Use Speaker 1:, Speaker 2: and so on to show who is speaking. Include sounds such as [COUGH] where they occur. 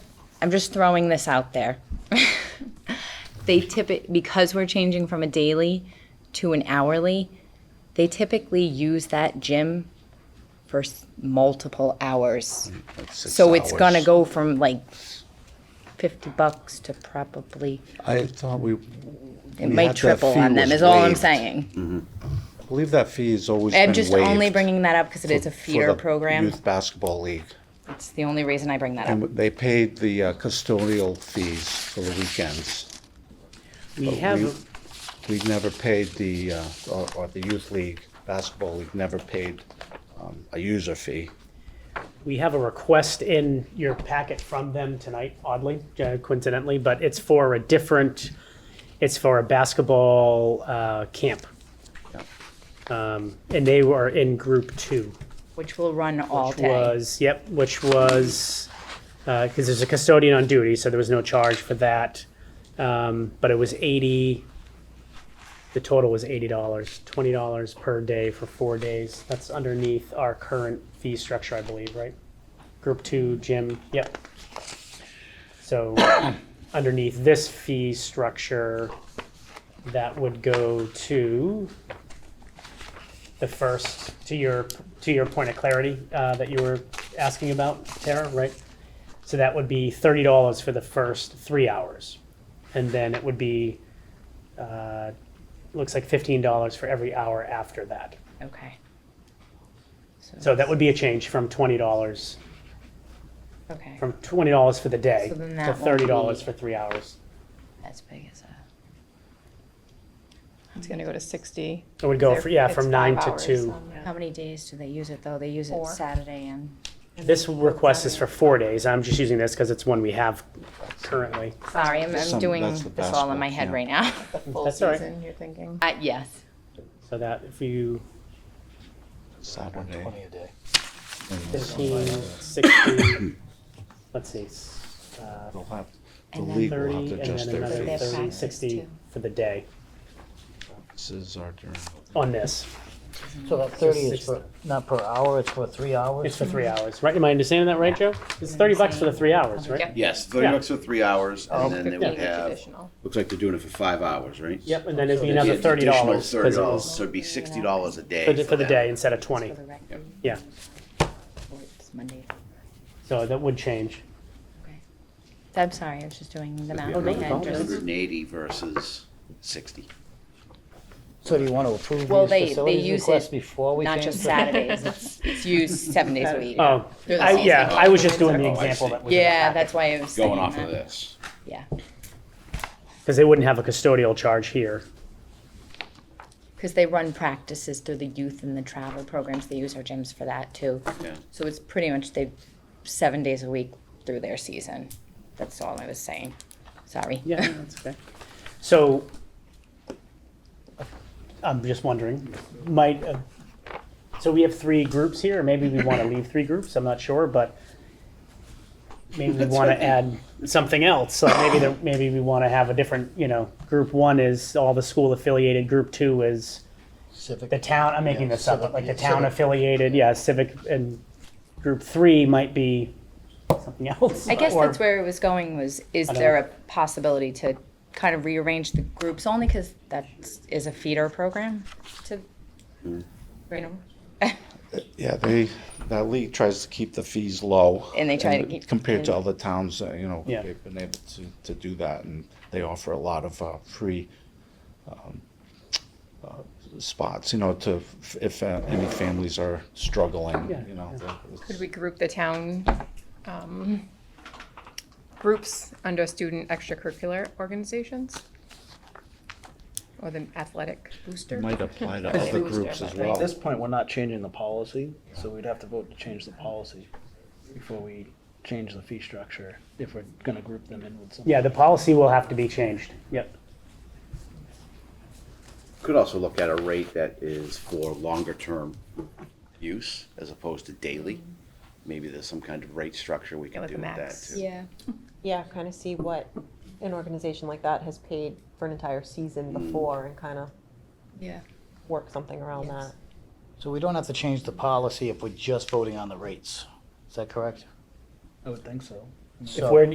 Speaker 1: I'm just throwing this out there. [LAUGHS] they typically, because we're changing from a daily to an hourly, they typically use that gym for s- multiple hours. So it's gonna go from like fifty bucks to probably,
Speaker 2: I thought we.
Speaker 1: it might triple on them, is all I'm saying.
Speaker 2: I believe that fee has always been
Speaker 1: I'm
Speaker 2: waived.
Speaker 1: just only bringing that up because it is a
Speaker 2: for
Speaker 1: feeder
Speaker 2: the
Speaker 1: program.
Speaker 2: Youth Basketball League.
Speaker 1: It's the only reason I bring that up.
Speaker 2: And they paid the uh, custodial fees for the weekends.
Speaker 3: We
Speaker 2: we-
Speaker 3: have,
Speaker 2: We never paid the, uh, or or the Youth League, Basketball League never paid um, a user fee.
Speaker 3: we have a request in your packet from them tonight, oddly, uh, coincidentally, but it's for a different, it's for a basketball uh, camp. Um, And they were in group two.
Speaker 1: Which will run all
Speaker 3: which
Speaker 1: day.
Speaker 3: was yep, which was because there's a custodian on duty, so there was no charge for that. Um, but it was eighty. The total was eighty dollars, twenty dollars per day for four days. That's underneath our current fee structure, I believe, right? Group two gym, yep. So [COUGHS] underneath this fee structure, that would go to the first, to your, to your point of clarity uh, that you were asking about, Tara, right? So that would be thirty dollars for the first three hours, and then it would be, uh, looks like fifteen dollars for every hour after that.
Speaker 1: Okay.
Speaker 3: So that would be a change from twenty dollars,
Speaker 1: Okay.
Speaker 3: from twenty dollars for the day
Speaker 1: So then that
Speaker 3: to
Speaker 1: won't
Speaker 3: thirty dollars
Speaker 1: be-
Speaker 3: for three hours.
Speaker 1: As big as a.
Speaker 4: It's gonna go to sixty.
Speaker 3: It would go,
Speaker 4: There-
Speaker 3: fr- yeah,
Speaker 4: it's
Speaker 3: from nine
Speaker 4: five
Speaker 3: to
Speaker 4: hours,
Speaker 3: two.
Speaker 4: um, yeah.
Speaker 1: How many days do they use it though? They use it
Speaker 4: Four.
Speaker 1: Saturday and.
Speaker 3: This request is for four days. I'm just using this because it's one we have currently.
Speaker 1: Sorry, I'm, I'm
Speaker 2: Some-
Speaker 1: doing
Speaker 2: that's the
Speaker 1: this all in my head
Speaker 2: basketball
Speaker 1: right now. [LAUGHS]
Speaker 4: The full
Speaker 3: That's all right.
Speaker 4: season, you're thinking.
Speaker 1: Uh, yes.
Speaker 3: So that if you
Speaker 2: Saturday.
Speaker 5: a day.
Speaker 3: 15, 60, [COUGHS] let's see, s- uh,
Speaker 2: They'll have, the
Speaker 1: And then
Speaker 2: league will have
Speaker 3: 30,
Speaker 2: to
Speaker 3: and
Speaker 2: adjust
Speaker 3: then
Speaker 2: their
Speaker 3: another
Speaker 1: Their
Speaker 3: 30,
Speaker 1: practice,
Speaker 3: 60
Speaker 1: too.
Speaker 3: for the day
Speaker 2: fees. Are during-
Speaker 3: on this.
Speaker 5: So that thirty is for, not per hour, it's for three hours?
Speaker 3: It's for three
Speaker 1: Mm-hmm.
Speaker 3: hours, right? Am I understanding that right, Joe? It's 30 bucks for the three hours, right?
Speaker 6: Yes, thirty
Speaker 3: Yeah.
Speaker 6: bucks for three hours, and then they would
Speaker 4: Being
Speaker 6: have,
Speaker 4: traditional.
Speaker 6: looks like they're doing it for five hours, right?
Speaker 3: Yep, and then it'd be
Speaker 6: It'd be
Speaker 3: another
Speaker 6: an
Speaker 3: $30
Speaker 6: additional
Speaker 3: because it
Speaker 6: Thirty dollars,
Speaker 3: was
Speaker 6: so it'd be sixty dollars a day.
Speaker 3: for the- for the
Speaker 6: them.
Speaker 3: day instead of 20.
Speaker 1: For the rec.
Speaker 6: Yep.
Speaker 3: Yeah,
Speaker 1: It's Monday.
Speaker 3: so that would change.
Speaker 1: I'm sorry, I was just doing the math in my
Speaker 3: no
Speaker 1: head.
Speaker 3: problem.
Speaker 1: just-
Speaker 6: Hundred and eighty versus sixty.
Speaker 5: So do you want to approve
Speaker 1: Well, they- they
Speaker 5: these facilities
Speaker 1: use
Speaker 5: requests
Speaker 1: it
Speaker 5: before we change?
Speaker 1: Not just
Speaker 2: [LAUGHS]
Speaker 5: the-
Speaker 1: Saturdays, it's, it's used seven days a week.
Speaker 3: Oh,
Speaker 1: They're the
Speaker 3: I-
Speaker 1: same
Speaker 3: yeah,
Speaker 1: thing.
Speaker 3: I was just doing the
Speaker 6: Oh, I
Speaker 3: example
Speaker 6: see.
Speaker 3: that was.
Speaker 1: Yeah, that's why I was
Speaker 6: Going
Speaker 1: thinking
Speaker 6: off of
Speaker 1: that.
Speaker 6: this,
Speaker 1: Yeah,
Speaker 3: Because they wouldn't have a custodial charge here.
Speaker 1: because they run practices through the youth and the travel programs, they use our gyms for that too.
Speaker 6: yeah.
Speaker 1: So it's pretty much they, seven days a week through their season. That's all I was saying. Sorry.
Speaker 3: [LAUGHS] Yeah, that's okay. So, I'm just wondering, might, uh, so we have three groups here, or maybe we want to leave three groups, I'm not sure, but maybe we
Speaker 6: That's
Speaker 3: want to
Speaker 6: okay.
Speaker 3: add something else, like maybe, there- maybe we want to have a different, you know, group one is all the school affiliated, group two is
Speaker 5: Civic.
Speaker 3: the town, I'm making
Speaker 5: Yeah,
Speaker 3: this up,
Speaker 5: civic-
Speaker 3: but like the
Speaker 5: yeah,
Speaker 3: town
Speaker 5: civic.
Speaker 3: affiliated, yeah, civic, and group three might be something [LAUGHS] else.
Speaker 1: I guess
Speaker 3: or-
Speaker 1: that's where it was going was, is
Speaker 3: I don't
Speaker 1: there a possibility to kind of rearrange the groups only because that is a feeder program to, you know?
Speaker 2: Yeah, they, that league tries to keep the fees low.
Speaker 1: And they try to keep-
Speaker 2: Compared to other towns, uh, you know,
Speaker 3: Yeah.
Speaker 2: they've been able to, to do that, and they offer a lot of, uh, free, um, uh, spots, you know, to, f- if, uh, any families are struggling,
Speaker 3: Yeah,
Speaker 2: you know.
Speaker 4: Could we group the town, um, groups under student extracurricular organizations? Or the athletic booster?
Speaker 2: Might apply to
Speaker 4: They
Speaker 2: other
Speaker 4: lose their
Speaker 2: groups as
Speaker 4: money.
Speaker 2: well.
Speaker 5: At this point, we're not changing the policy, so we'd have to vote to change the policy before we change the fee structure, if we're going to group them in with something.
Speaker 3: Yeah, the policy will have to be changed, yep.
Speaker 6: Could also look at a rate that is for longer-term use as opposed to daily. Maybe there's some kind of rate structure we can
Speaker 4: like
Speaker 6: do
Speaker 4: a
Speaker 6: with that
Speaker 4: max.
Speaker 6: too.
Speaker 1: Yeah.
Speaker 7: Yeah, kind of see what an organization like that has paid for an entire season before and kind of
Speaker 4: Yeah.
Speaker 7: work something around
Speaker 4: Yes.
Speaker 7: that.
Speaker 5: So we don't have to change the policy if we're just voting on the rates. Is that correct? I would think so.
Speaker 3: If we're,